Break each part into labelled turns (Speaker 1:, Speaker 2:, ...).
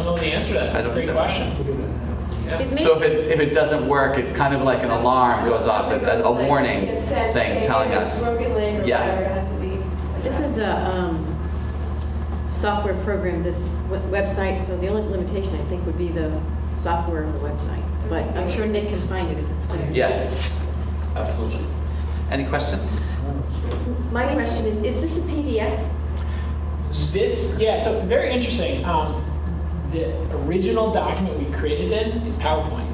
Speaker 1: really answer that. That's a
Speaker 2: don't
Speaker 1: great
Speaker 2: know.
Speaker 1: question. Yeah.
Speaker 3: It may-
Speaker 2: So if it, if it doesn't work, it's kind of like an alarm goes off, a, a- a warning
Speaker 4: It says,
Speaker 2: saying,
Speaker 4: say,
Speaker 2: telling
Speaker 4: there's
Speaker 2: us.
Speaker 4: a Broken leg or
Speaker 2: Yeah.
Speaker 4: whatever, it has to be.
Speaker 3: This is a um, software program, this w- website, so the only limitation, I think, would be the software of the website. But I'm sure Nick can find it if it's there.
Speaker 2: Yeah, absolutely. Any questions?
Speaker 3: My question is, is this a PDF?
Speaker 1: This, yeah, so very interesting. Um, the original document we created in is PowerPoint.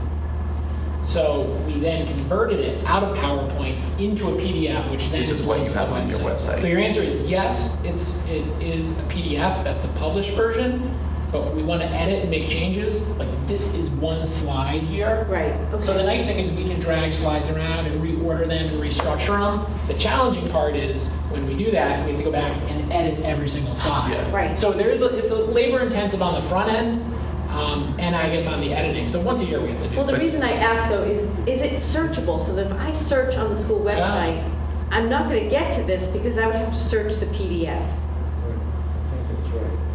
Speaker 1: So we then converted it out of PowerPoint into a PDF, which then
Speaker 2: Which is what you
Speaker 1: linked to
Speaker 2: have
Speaker 1: the
Speaker 2: on your website.
Speaker 1: So your answer is yes, it's it is a PDF. That's the published version. But we want to edit and make changes. Like this is one slide here.
Speaker 3: Right, okay.
Speaker 1: So the nice thing is we can drag slides around and reorder them and restructure them. The challenging part is when we do that, we have to go back and edit every single slide.
Speaker 2: Yeah.
Speaker 3: Right.
Speaker 1: So there is, a- it's a labor intensive on the front end, um, and I guess on the editing. So once a year we have to do.
Speaker 3: Well,
Speaker 1: it.
Speaker 3: the reason I ask though is, is it searchable? So that if I search on the school
Speaker 1: Yeah.
Speaker 3: website, I'm not going to get to this because I would have to search the PDF.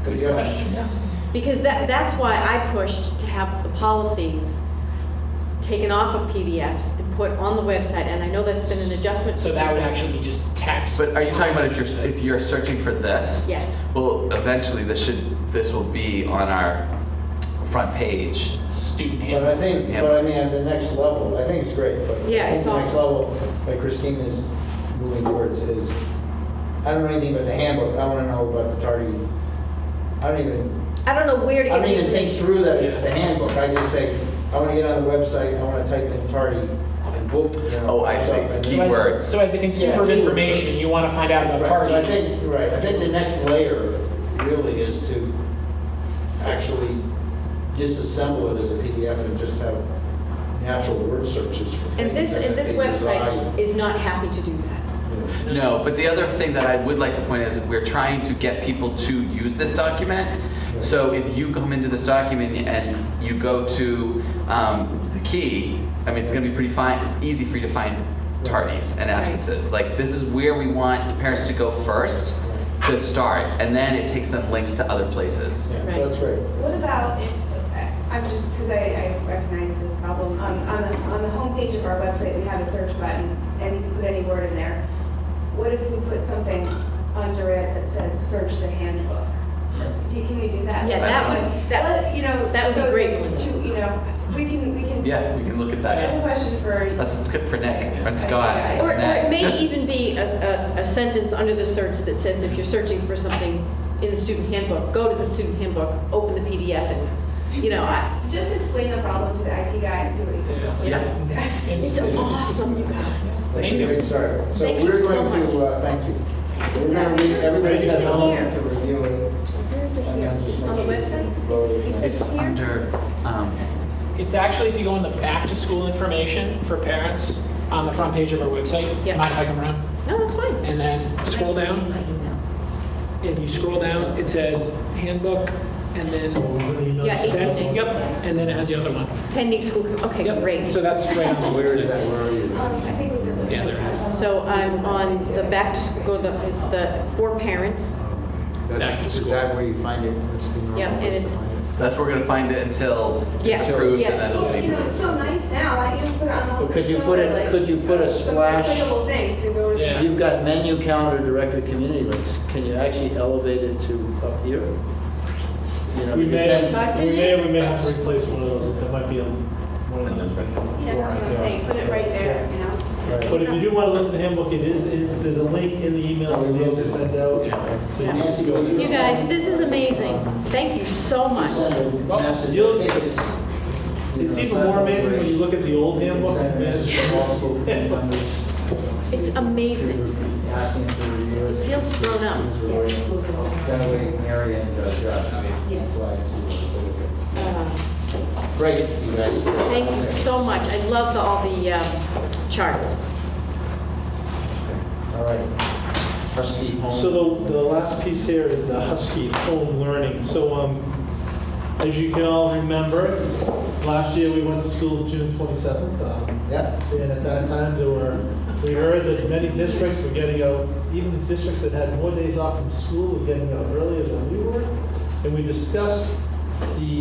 Speaker 1: Good question, yeah.
Speaker 3: Because that, that's why I pushed to have the policies taken off of PDFs and put on the website, and I know that's been an adjustment.
Speaker 1: So that would actually be just text.
Speaker 2: But are you talking about if you're, if you're searching for this?
Speaker 3: Yeah.
Speaker 2: Well, eventually this should, this will be on our front page.
Speaker 1: Student
Speaker 5: But I
Speaker 1: handbooks.
Speaker 5: think,
Speaker 2: Yeah.
Speaker 5: but I mean, at the next level, I think it's great, but I
Speaker 3: Yeah,
Speaker 5: think
Speaker 3: it's
Speaker 5: the next
Speaker 3: awesome.
Speaker 5: level, like Christine is moving towards is, I don't know anything about the handbook, I wanna know about the tardy. I don't even,
Speaker 3: I don't know where
Speaker 5: I
Speaker 3: to get
Speaker 5: don't
Speaker 3: the
Speaker 5: even think
Speaker 3: information.
Speaker 5: through that it's the handbook, I just say, I wanna get on the website, I wanna type in tardy and book, you know.
Speaker 2: Oh, I see,
Speaker 5: stuff, and-
Speaker 2: keywords.
Speaker 1: So as a consumer of
Speaker 5: Yeah.
Speaker 1: information, you want to find out about
Speaker 5: Right, so I
Speaker 1: parties.
Speaker 5: think, right, I think the next layer really is to actually disassemble it as a PDF and just have natural word searches for things.
Speaker 3: And this,
Speaker 5: that
Speaker 3: and this
Speaker 5: they
Speaker 3: website
Speaker 5: design.
Speaker 3: is not happy to do that.
Speaker 2: No, but the other thing that I would like to point out is we're trying to get people to use this document. So if you come into this document and you go to um, the key, I mean, it's going to be pretty fine, easy for you to find tardies and absences. Like this is where we want parents to go first to start, and then it takes them links to other places.
Speaker 5: Yeah, so that's right.
Speaker 6: What about if, I'm just, because I, I recognize this problem, on, on the, on the homepage of our website, we have a search button, and you can put any word in there. What if we put something under it that said, search the handbook?
Speaker 2: Hmm.
Speaker 6: Do you- Can we do that?
Speaker 3: Yeah,
Speaker 2: that
Speaker 3: would- that-
Speaker 6: Well, You know.
Speaker 3: that would be
Speaker 6: so
Speaker 3: great.
Speaker 6: it's too- you know, we can, we can.
Speaker 2: Yeah, we can look at
Speaker 6: That's a
Speaker 2: that.
Speaker 6: question for.
Speaker 2: That's good for Nick and Scott. and
Speaker 3: Or or it
Speaker 2: Nick.
Speaker 3: may even be a, a, a sentence under the search that says if you're searching for something in the student handbook, go to the student handbook, open the PDF and, you know, I,
Speaker 6: Just explain the problem to the IT guy and see what he can do.
Speaker 1: Yeah.
Speaker 2: Yeah.
Speaker 1: And-
Speaker 3: it's awesome, you guys.
Speaker 5: That's
Speaker 1: Thank
Speaker 5: a
Speaker 1: you.
Speaker 5: great start. So
Speaker 3: Thank you
Speaker 5: we're
Speaker 3: so
Speaker 5: going to,
Speaker 3: much.
Speaker 5: uh, thank you. We're gonna read, everybody's got
Speaker 3: Here.
Speaker 5: home to review it.
Speaker 3: Where is it
Speaker 5: and
Speaker 3: here?
Speaker 5: then just make
Speaker 3: On the
Speaker 5: sure you
Speaker 3: website?
Speaker 5: vote.
Speaker 3: You said it's
Speaker 2: It's
Speaker 3: here?
Speaker 2: under, um,
Speaker 1: It's actually, if you go in the back to school information for parents on the front page of our website,
Speaker 3: Yeah.
Speaker 1: mind if I come around?
Speaker 3: No, that's fine.
Speaker 1: And then scroll down, and you scroll down, it says handbook, and
Speaker 5: Oh,
Speaker 1: then
Speaker 3: Yeah,
Speaker 1: that's,
Speaker 3: 18.
Speaker 1: yep, and then it has the other one.
Speaker 3: Pending school, okay,
Speaker 1: Yep,
Speaker 3: great.
Speaker 1: So that's right on the
Speaker 5: Where is
Speaker 1: website.
Speaker 5: that, where are you?
Speaker 6: Um, I think we could.
Speaker 1: Yeah, there it is.
Speaker 3: So I'm on the back to school, the, it's the for parents.
Speaker 5: That's,
Speaker 1: Back to
Speaker 5: is
Speaker 1: school.
Speaker 5: that where you find it? That's the normal
Speaker 3: Yeah, and
Speaker 5: place to
Speaker 3: it's-
Speaker 5: find it.
Speaker 2: That's where we're gonna find it until
Speaker 3: Yes,
Speaker 2: it's approved and
Speaker 3: yes.
Speaker 2: then it'll
Speaker 6: So, you
Speaker 2: be.
Speaker 6: know, it's so nice now, I can put it on the.
Speaker 5: But could you put it-
Speaker 6: like,
Speaker 5: could you put a
Speaker 6: some
Speaker 5: splash-
Speaker 6: clickable thing to go to.
Speaker 1: Yeah.
Speaker 5: You've got menu calendar directed community links. Can you actually elevate it to up here? You know,
Speaker 7: We
Speaker 5: because
Speaker 7: may,
Speaker 5: then-
Speaker 3: Talk to
Speaker 7: we may,
Speaker 3: Nick.
Speaker 7: we may have to replace one of those, that might be a- one of them.
Speaker 6: Yeah, that's what I'm saying, put it right there, you know?
Speaker 7: But if you do want to look at the handbook, it is, it- there's a link in the email that we also sent out. So you can just go there.
Speaker 3: You guys, this is amazing. Thank you so much.
Speaker 7: Oh, You'll- It's even more amazing when you look at the old handbook.
Speaker 3: It's amazing.
Speaker 5: Asking for
Speaker 3: It
Speaker 5: reviews.
Speaker 3: feels grown up.
Speaker 5: That way Mary and uh, Josh can fly to.
Speaker 3: Uh,
Speaker 5: Great, you guys.
Speaker 3: Thank you so much. I love the- all the um, charts.
Speaker 5: All right. Trustee Holmes.
Speaker 7: So the, the last piece here is the Husky home learning. So, um, as you can all remember, last year we went to school June 27th. um,
Speaker 5: Yeah.
Speaker 7: And at that time, there were, we heard that many districts were getting out, even the districts that had more days off from school were getting out earlier than we were. And we discussed the